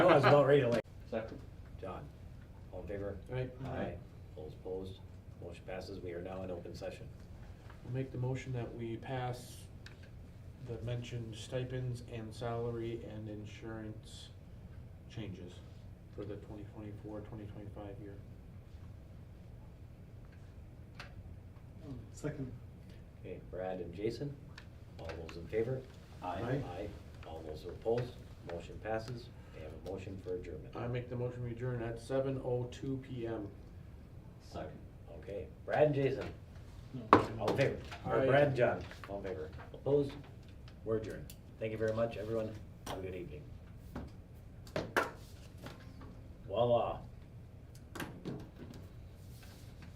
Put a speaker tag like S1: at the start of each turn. S1: was about ready to like.
S2: Second.
S1: John, all in favor?
S2: Right,
S1: Aye. Those opposed, motion passes. We are now in open session.
S2: I'll make the motion that we pass the mentioned stipends and salary and insurance changes for the 2024-2025 year.
S3: Oh, Second.
S1: Okay, Brad and Jason, all those in favor?
S3: Aye.
S1: Aye. All those opposed, motion passes. We have a motion for adjournment.
S2: I make the motion we adjourn at seven oh two P M.
S1: Second. Okay, Brad and Jason,
S3: No.
S1: all in favor? Or
S2: Aye.
S1: Brad and John, all in favor? Opposed? We're adjourned. Thank you very much, everyone. Have a good evening. Voila.